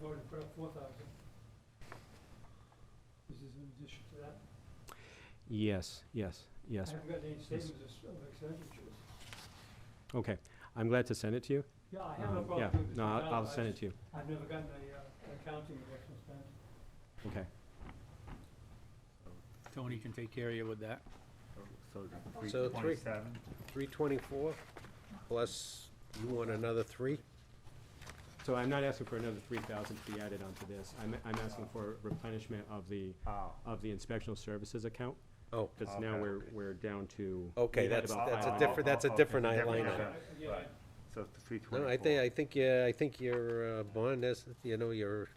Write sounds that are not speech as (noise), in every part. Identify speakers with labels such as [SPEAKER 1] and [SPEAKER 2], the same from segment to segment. [SPEAKER 1] voted to put up four thousand. This is in addition to that.
[SPEAKER 2] Yes, yes,
[SPEAKER 1] I
[SPEAKER 2] yes.
[SPEAKER 1] haven't gotten any statements of of expenditures.
[SPEAKER 2] Okay, I'm glad to send it to you.
[SPEAKER 1] Yeah, I have no
[SPEAKER 2] Um,
[SPEAKER 1] problem
[SPEAKER 2] Yeah,
[SPEAKER 1] doing this.
[SPEAKER 2] no,
[SPEAKER 1] right
[SPEAKER 2] I'll
[SPEAKER 1] now.
[SPEAKER 2] I'll
[SPEAKER 1] I
[SPEAKER 2] send it
[SPEAKER 1] just-
[SPEAKER 2] to you.
[SPEAKER 1] I've never gotten a, uh, accounting of what's been spent.
[SPEAKER 2] Okay.
[SPEAKER 3] Tony can take care of you with that.
[SPEAKER 4] So three,
[SPEAKER 5] Twenty-seven.
[SPEAKER 4] three twenty-four, plus you want another three?
[SPEAKER 2] So I'm not asking for another three thousand to be added onto this. I'm, I'm asking for replenishment of the,
[SPEAKER 5] Oh,
[SPEAKER 2] of the inspectional services account,
[SPEAKER 4] Oh,
[SPEAKER 2] because now
[SPEAKER 5] Okay.
[SPEAKER 2] we're, we're down to.
[SPEAKER 4] okay,
[SPEAKER 2] we had
[SPEAKER 4] that's,
[SPEAKER 2] about
[SPEAKER 4] that's a
[SPEAKER 2] five-
[SPEAKER 4] different, that's a different
[SPEAKER 5] Oh, oh, oh,
[SPEAKER 4] line
[SPEAKER 5] okay.
[SPEAKER 4] item.
[SPEAKER 1] I- yeah, I-
[SPEAKER 5] Right. so three twenty-four.
[SPEAKER 4] No, I think, I think, yeah, I think your uh, bond is, you know, your,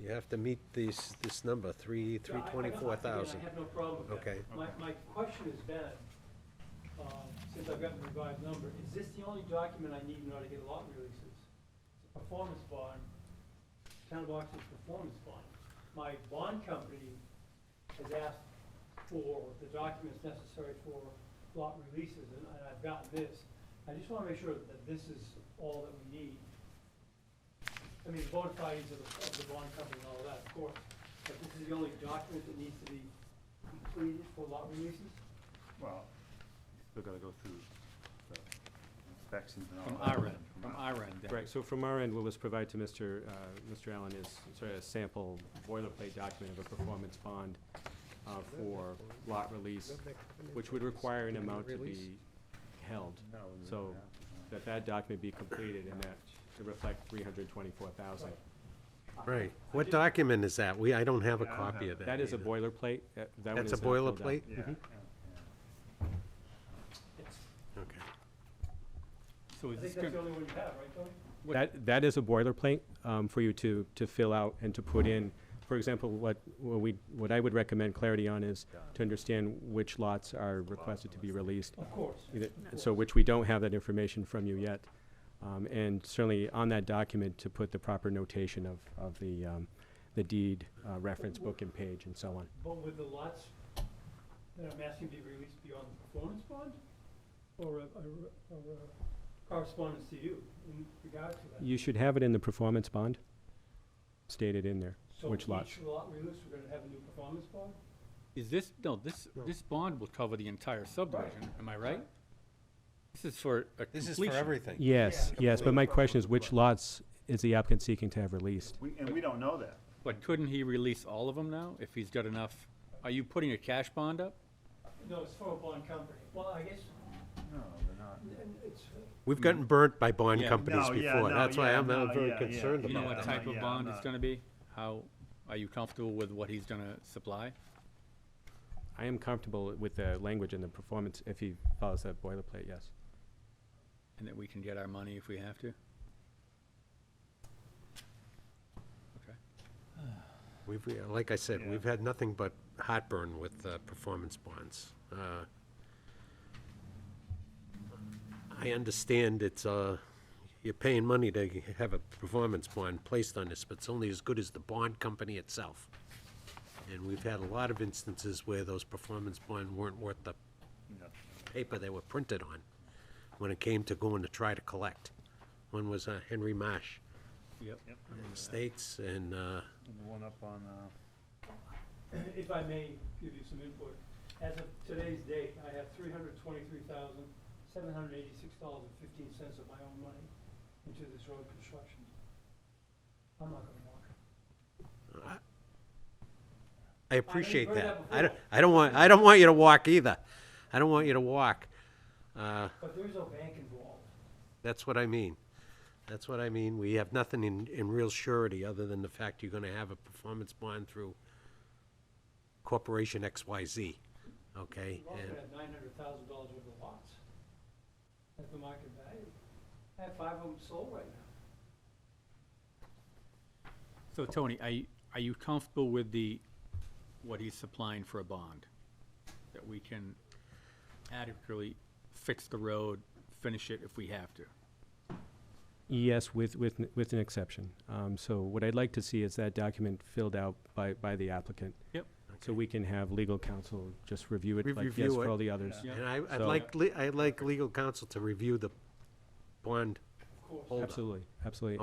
[SPEAKER 4] you have to meet this, this number, three,
[SPEAKER 1] Yeah, I- I-
[SPEAKER 4] three
[SPEAKER 1] I-
[SPEAKER 4] twenty-four thousand.
[SPEAKER 1] again, I have no problem with that.
[SPEAKER 4] Okay.
[SPEAKER 1] My, my question is that, um, since I've gotten the revised number, is this the only document I need in order to get lot releases? It's a Performance bond, town of Oxford's performance bond. My bond company has asked for the documents necessary for lot releases, and and I've gotten this. I just wanna make sure that this is all that we need. I mean, bona fides of the, of the bond company and all that, of course, but this is the only document that needs to be completed for lot releases?
[SPEAKER 5] Well, you still gotta go through the inspections and all
[SPEAKER 3] From
[SPEAKER 5] that.
[SPEAKER 3] our end, from
[SPEAKER 5] our-
[SPEAKER 3] our end. then.
[SPEAKER 2] Right, so from our end, we'll just provide to Mr., uh, Mr. Allen is sort of a sample boilerplate document of a performance bond uh, for lot release, which would require an amount to be held,
[SPEAKER 5] No, we-
[SPEAKER 2] So,
[SPEAKER 5] yeah,
[SPEAKER 2] that that document be completed and that to reflect three hundred twenty-four thousand.
[SPEAKER 4] Right, what document is that? We, I don't have a
[SPEAKER 5] Yeah, I don't
[SPEAKER 4] copy
[SPEAKER 5] have
[SPEAKER 4] of that.
[SPEAKER 2] That is a
[SPEAKER 4] either.
[SPEAKER 2] boilerplate. that- that one
[SPEAKER 4] That's a
[SPEAKER 2] is not filled out.
[SPEAKER 4] boilerplate?
[SPEAKER 5] yeah, yeah,
[SPEAKER 1] It's-
[SPEAKER 4] Okay.
[SPEAKER 3] So
[SPEAKER 1] I
[SPEAKER 3] is
[SPEAKER 1] think that's
[SPEAKER 3] this,
[SPEAKER 1] the
[SPEAKER 3] gonna-
[SPEAKER 1] only one you have, right, Tony?
[SPEAKER 3] What-
[SPEAKER 2] That, that is a boilerplate um, for you to, to fill out and to put in. For example, what, what we, what I would recommend clarity on is to understand which lots are requested to be released.
[SPEAKER 1] Of course.
[SPEAKER 2] Either- So which we don't have that information from you yet. Um, And certainly on that document to put the proper notation of, of the, um, the deed, uh, reference book and page and so on.
[SPEAKER 1] But with the lots that I'm asking to be released beyond the performance bond? Or a, a- or a correspondence to you in regard to that?
[SPEAKER 2] You should have it in the performance bond stated in there. which lots?
[SPEAKER 1] So each lot release, we're gonna have a new performance bond?
[SPEAKER 3] is this, no, this, this bond will cover the entire subdivision, am I right? This is for a completion.
[SPEAKER 4] This is for everything.
[SPEAKER 2] Yes, yes, but my
[SPEAKER 4] completely.
[SPEAKER 2] question is which lots is the applicant seeking to have released?
[SPEAKER 5] we, and we don't know that,
[SPEAKER 3] But couldn't he release all of them now, if he's got enough? Are you putting a cash bond up?
[SPEAKER 1] No, it's for a bond company. Well, I guess,
[SPEAKER 5] no, they're not.
[SPEAKER 1] n- n- it's,
[SPEAKER 4] We've gotten burnt by bond
[SPEAKER 3] Yeah.
[SPEAKER 4] companies
[SPEAKER 5] No, yeah,
[SPEAKER 4] before,
[SPEAKER 5] no,
[SPEAKER 4] that's why
[SPEAKER 5] yeah,
[SPEAKER 4] I'm
[SPEAKER 5] no,
[SPEAKER 4] not very
[SPEAKER 5] yeah, yeah.
[SPEAKER 4] concerned
[SPEAKER 3] Do you
[SPEAKER 4] about
[SPEAKER 3] know
[SPEAKER 5] Yeah,
[SPEAKER 3] what
[SPEAKER 5] I'm
[SPEAKER 4] that.
[SPEAKER 3] type
[SPEAKER 5] not-
[SPEAKER 3] of
[SPEAKER 5] yeah,
[SPEAKER 3] bond
[SPEAKER 5] I'm
[SPEAKER 3] it's
[SPEAKER 5] not-
[SPEAKER 3] gonna be? How, are you comfortable with what he's gonna supply?
[SPEAKER 2] I am comfortable with the language and the performance if he follows that boilerplate, yes.
[SPEAKER 3] And that we can get our money if we have to? Okay.
[SPEAKER 4] We've, yeah, like I said,
[SPEAKER 5] Yeah.
[SPEAKER 4] we've had nothing but heartburn with uh, performance bonds. Uh, I understand it's, uh, you're paying money to g- have a performance bond placed on this, but it's only as good as the bond company itself. And we've had a lot of instances where those performance bonds weren't worth the
[SPEAKER 5] No.
[SPEAKER 4] paper they were printed on when it came to going to try to collect. One was uh, Henry Marsh
[SPEAKER 3] Yep.
[SPEAKER 5] Yep,
[SPEAKER 4] Estates, and uh,
[SPEAKER 5] and the one up on, uh,
[SPEAKER 1] (clears throat) If I may give you some input, as of today's date, I have three hundred twenty-three thousand, seven hundred eighty-six dollars and fifteen cents of my own money into this road construction. I'm not gonna walk.
[SPEAKER 4] I appreciate
[SPEAKER 1] heard
[SPEAKER 4] that.
[SPEAKER 1] that
[SPEAKER 4] I don't,
[SPEAKER 1] before.
[SPEAKER 4] I don't want, I don't want you to walk either. I don't want you to walk. Uh,
[SPEAKER 1] But there's no bank involved.
[SPEAKER 4] That's what I mean. That's what I mean. We have nothing in, in real surety other than the fact you're gonna have a performance bond through Corporation XYZ, okay?
[SPEAKER 1] We're also
[SPEAKER 4] And-
[SPEAKER 1] at nine hundred thousand dollars worth of lots at the market value. I have five of them sold right now.
[SPEAKER 3] So Tony, are you, are you comfortable with the, what he's supplying for a bond? That we can adequately fix the road, finish it if we have to?
[SPEAKER 2] Yes, with, with, n- with an exception. Um, So what I'd like to see is that document filled out by, by the applicant.
[SPEAKER 3] Yep.
[SPEAKER 2] So we can have legal counsel just review it
[SPEAKER 4] Re-
[SPEAKER 2] like yes
[SPEAKER 4] review
[SPEAKER 2] for
[SPEAKER 4] it.
[SPEAKER 2] all the others.
[SPEAKER 3] Yeah.
[SPEAKER 4] And I, I'd
[SPEAKER 2] So-
[SPEAKER 4] like, le- I'd like legal counsel to review the bond
[SPEAKER 1] course.
[SPEAKER 4] Hold up.
[SPEAKER 2] Absolutely, absolutely.